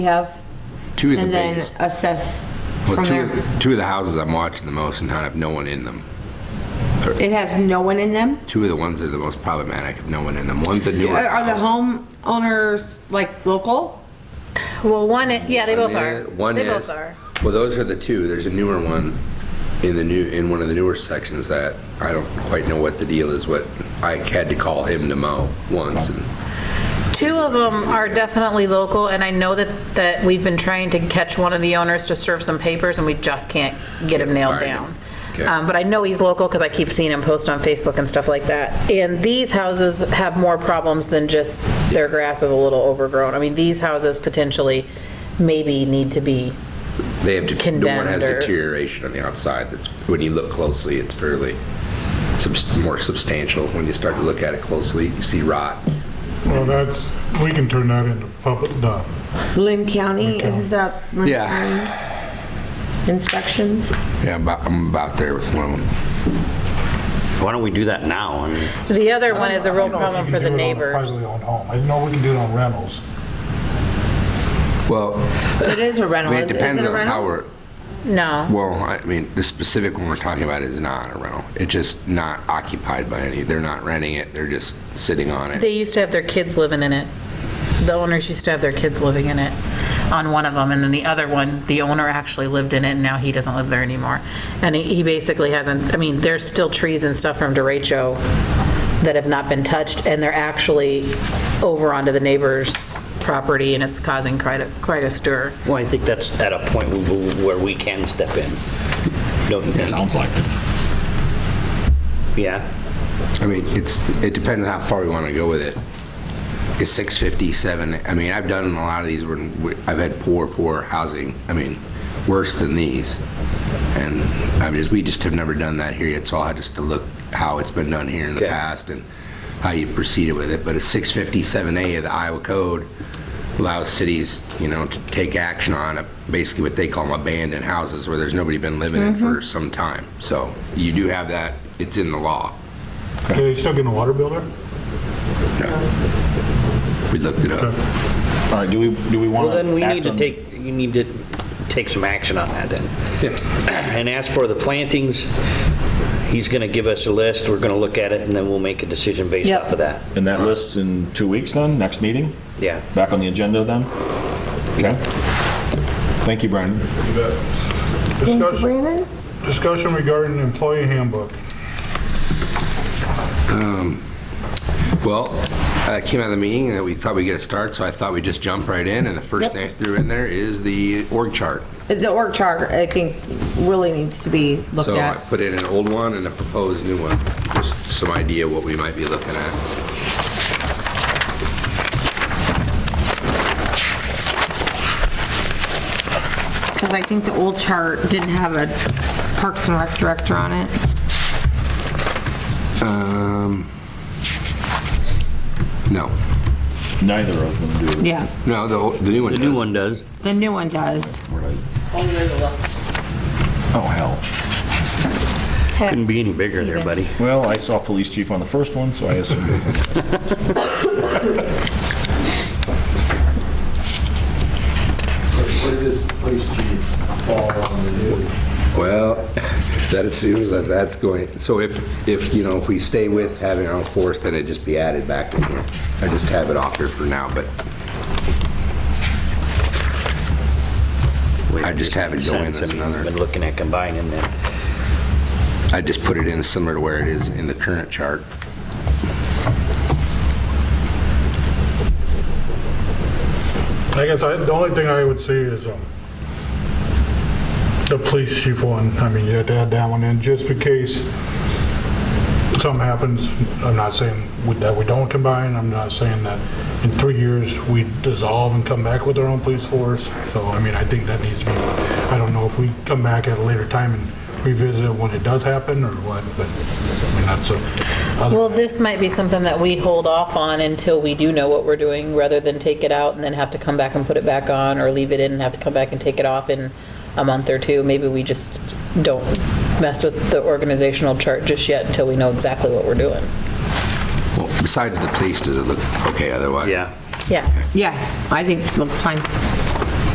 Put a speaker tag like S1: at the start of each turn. S1: we have,
S2: Two of the
S1: and then
S2: biggest.
S1: assess
S2: Well,
S1: from
S2: two,
S1: there.
S2: of- two of the houses I'm watching the most and have no one in them.
S1: It has no one in them?
S2: Two of the ones that are the most problematic have no one in them. One's a newer
S1: Are are the
S2: house.
S1: homeowners like local?
S3: Well, one, i- yeah, they both
S2: One
S3: are.
S2: is- One
S3: They
S2: is,
S3: both are.
S2: well, those are the two. There's a newer one in the new, in one of the newer sections that I don't quite know what the deal is, what I had to call him to mow once. and
S3: Two of them are definitely local, and I know that, that we've been trying to catch one of the owners to serve some papers, and we just can't get him nailed
S2: Find him.
S3: down.
S2: Okay.
S3: Um, But I know he's local, because I keep seeing him post on Facebook and stuff like that. And these houses have more problems than just their grass is a little overgrown. I mean, these houses potentially maybe need to be,
S2: They have, det- no one has
S3: Condemned or-
S2: deterioration on the outside that's, when you look closely, it's fairly subs- more substantial. When you start to look at it closely, you see rot.
S4: Well, that's, we can turn that into public, no.
S1: Lynn County, isn't that? Lynn
S2: Yeah.
S1: County? Inspections?
S2: Yeah, I'm about, I'm about there with one of them.
S5: Why don't we do that now? I mean,
S3: the other one is a real problem
S4: We
S3: for
S4: can
S3: the
S4: do it on a
S3: neighbors.
S4: Privately owned home. I know we can do it on rentals.
S2: Well,
S1: It is a
S2: I
S1: rental.
S2: mean, it
S1: Is- is
S2: depends
S1: it a
S2: on
S1: rental?
S2: how we're,
S3: No.
S2: well, I mean, the specific one we're talking about is not a rental. It's just not occupied by any, they're not renting it, they're just sitting on it.
S3: They used to have their kids living in it. The owners used to have their kids living in it on one of them, and then the other one, the owner actually lived in it, and now he doesn't live there anymore. And he he basically hasn't, I mean, there's still trees and stuff from derecho that have not been touched, and they're actually over onto the neighbor's property, and it's causing quite a, quite a stir.
S5: well, I think that's at a point wh- where we can step in, don't you think? Sounds like it. Yeah,
S2: I mean, it's, it depends on how far we want to go with it. It's 657, I mean, I've done a lot of these, where we- I've had poor, poor housing, I mean, worse than these. And I mean, we just have never done that here yet, so I'll have just to look how it's been done here in the
S5: Okay.
S2: past and how you proceeded with it. But a 657A of the Iowa Code allows cities, you know, to take action on a- basically what they call them abandoned houses where there's nobody been living in for some time. So you do have that, it's in the law.
S4: Are you still getting a water bill there?
S2: We looked it up.
S6: All right, do we, do we want
S5: well,
S6: to?
S5: then we need to take, you need to take some action on that then. And as for the plantings, he's going to give us a list, we're going to look at it, and then we'll make a decision based
S1: Yep.
S5: off of that.
S6: And that list in two weeks then, next meeting?
S5: Yeah.
S6: Back on the agenda then? Okay. Thank you, Brian.
S4: Discussion, discussion regarding employee handbook.
S2: Well, uh, it came out of the meeting that we thought we'd get a start, so I thought we'd just jump right in, and the first
S1: Yep.
S2: thing I threw in there is the org chart.
S1: The org chart, I think, really needs to be looked
S2: So I
S1: at.
S2: put in an old one and a proposed new one, just some idea what we might be looking at.
S1: Because I think the old chart didn't have a Parks and Rec director on it.
S2: Um, No,
S6: Neither of them do.
S1: Yeah,
S2: no, the the new one
S5: The
S2: does.
S5: new one does.
S1: the new one does.
S6: Oh, hell.
S5: Couldn't be any bigger there, buddy.
S6: Well, I saw police chief on the first one, so I assume.
S7: Where does police chief fall on the new?
S2: Well, that assumes that that's going, so if, if, you know, if we stay with having our own force, then it'd just be added back in here. I just have it off here for now, but I just have it go in
S5: Sense,
S2: as
S5: I mean,
S2: another.
S5: Been looking at combining them.
S2: I just put it in similar to where it is in the current chart.
S4: I guess I, the only thing I would see is, um, the police chief one, I mean, you had to add that one in, just in case something happens, I'm not saying we- that we don't combine, I'm not saying that in three years we dissolve and come back with our own police force, so, I mean, I think that needs to be, I don't know if we come back at a later time and revisit it when it does happen, or what, but, I mean, that's a, other-
S3: Well, this might be something that we hold off on until we do know what we're doing, rather than take it out and then have to come back and put it back on, or leave it in and have to come back and take it off in a month or two. Maybe we just don't mess with the organizational chart just yet until we know exactly what we're doing.
S2: Well, besides the police, does it look okay otherwise?
S5: Yeah.
S3: Yeah.
S1: Yeah, I think it looks fine.